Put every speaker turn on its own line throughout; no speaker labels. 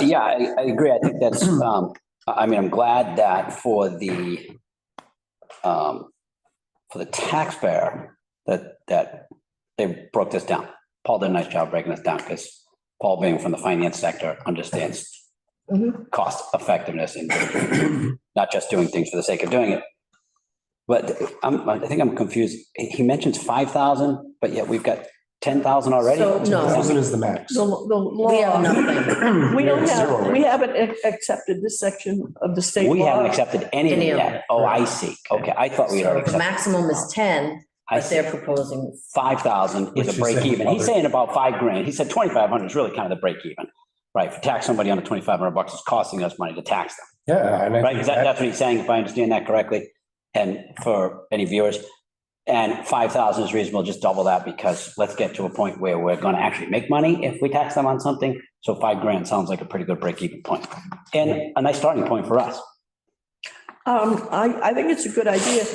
Yeah, I, I agree. I think that's, um, I, I mean, I'm glad that for the, um, for the taxpayer, that, that they broke this down. Paul did a nice job breaking this down because Paul being from the finance sector understands
Mhm.
cost effectiveness and not just doing things for the sake of doing it. But I'm, I think I'm confused. He he mentions five thousand, but yet we've got ten thousand already.
So, no.
Thousand is the max.
The, the
We have
law,
nothing.
we don't
It's
have,
zero.
we haven't ac- accepted this section of the state
We haven't
law.
accepted any of
Any
it
of
yet. Oh, I see. Okay, I thought we had
So
already
the
accepted.
maximum is ten,
I
but
see.
they're proposing,
Five thousand is
Which
a
is
break even.
saying
He's
other-
saying about five grand. He said twenty-five hundred is really kind of the break even. Right, for tax somebody under twenty-five hundred bucks is costing us money to tax them,
Yeah, and I
right?
think
Is that,
that,
that's what he's saying, if I understand that correctly? And for any viewers, and five thousand is reasonable, just double that because let's get to a point where we're gonna actually make money if we tax them on something. So five grand sounds like a pretty good break even point and a nice starting point for us.
Um, I, I think it's a good idea,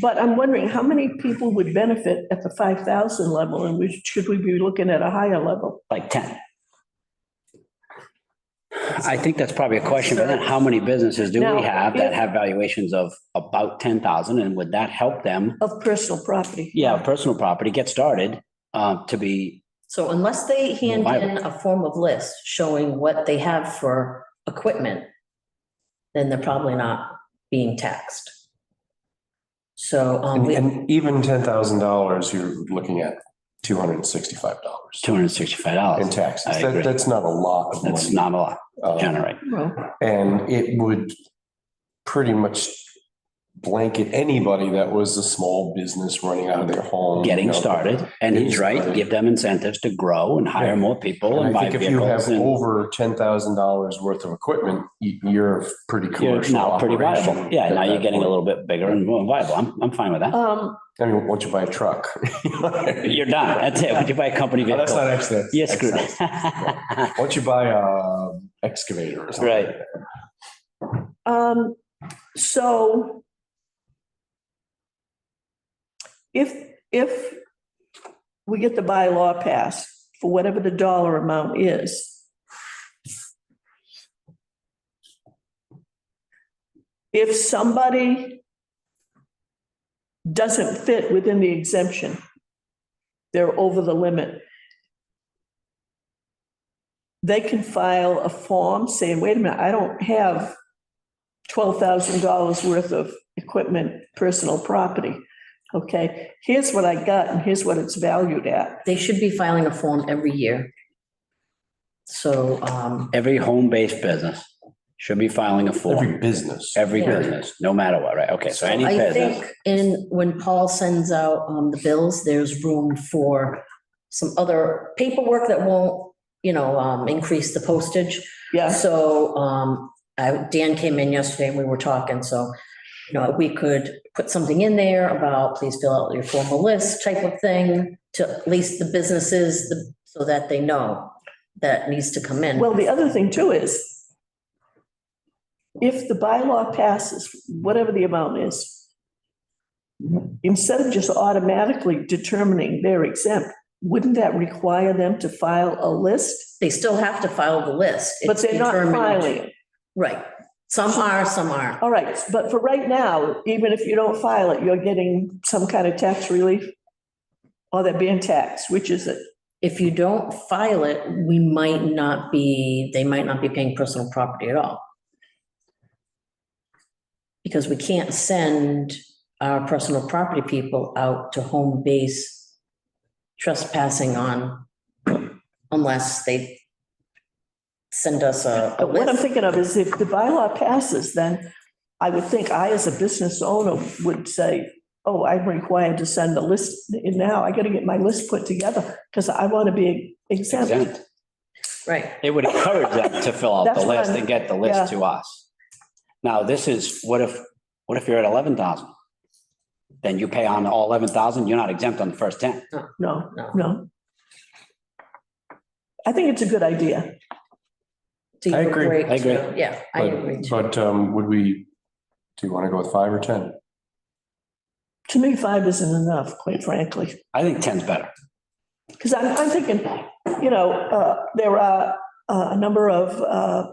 but I'm wondering how many people would benefit at the five thousand level and we, should we be looking at a higher level?
like ten. I think that's probably a question, but then how many businesses do
Now,
we have that
if-
have valuations of about ten thousand and would that help them?
Of personal property.
Yeah, personal property, get started, uh, to be,
so unless they hand
Why-
in a form of list showing what they have for equipment, then they're probably not being taxed. So, um,
and
we,
and even ten thousand dollars, you're looking at two hundred and sixty-five dollars
two hundred and sixty-five
in
dollars.
taxes.
I agree.
That, that's not a lot of
That's
money.
not a lot to
Um,
generate.
Well,
And it would pretty much blanket anybody that was a small business running out of their home. you
Getting
know.
started, and he's right, give them incentives to grow and hire more people and
And I
buy
think if you have
vehicles and
over ten thousand dollars worth of equipment, you- you're pretty
you're
commercial
now pretty viable.
operation
Yeah,
at
now you're
that
getting a
point.
little bit bigger and more viable. I'm, I'm fine with that.
um,
I mean, once you buy a truck.
You're done. That's it. Would you buy a company
Oh,
vehicle?
That's not excellent.
You're screwed. Right.
Once you buy a excavator or something.
Right.
Um, so if, if we get the bylaw passed for whatever the dollar amount is, if somebody doesn't fit within the exemption, they're over the limit, they can file a form saying, wait a minute, I don't have twelve thousand dollars worth of equipment, personal property. Okay, here's what I got and here's what it's valued at.
they should be filing a form every year. So, um,
Every home-based business should be filing a
Every
form,
business.
every
Yeah.
business, no matter what, right? Okay, so any
I
business,
think in, when Paul sends out um, the bills, there's room for some other paperwork that won't, you know, um, increase the postage.
Yeah,
So um, I- Dan came in yesterday and we were talking, so, you know, we could put something in there about please fill out your formal list type of thing to at least the businesses, the- so that they know that needs to come in.
well, the other thing too is if the bylaw passes, whatever the amount is, instead of just automatically determining they're exempt, wouldn't that require them to file a list?
They still have to file the list.
But they're not
It's determined-
filing it.
Right. Some are, some aren't.
All right, but for right now, even if you don't file it, you're getting some kind of tax relief? Or they're being taxed, which is it?
If you don't file it, we might not be, they might not be paying personal property at all. Because we can't send our personal property people out to home base trespassing on unless they send us a a
But what I'm
list.
thinking of is if the bylaw passes, then I would think I, as a business owner, would say, oh, I'm required to send a list in now. I gotta get my list put together because I want to be exempt.
exempt.
Right.
It would encourage them to fill out the
That's what
list
I'm-
and get the
yeah.
list to us. Now, this is, what if, what if you're at eleven thousand? Then you pay on all eleven thousand, you're not exempt on the first ten.
No,
No.
no. I think it's a good idea.
Do you
I agree.
I agree.
too? Yeah, I
But-
agree. too.
But um, would we, do you want to go with five or 10?
To me, five isn't enough, quite frankly.
I think ten's better.
Because I'm, I'm thinking, you know, uh, there are uh, a number of uh,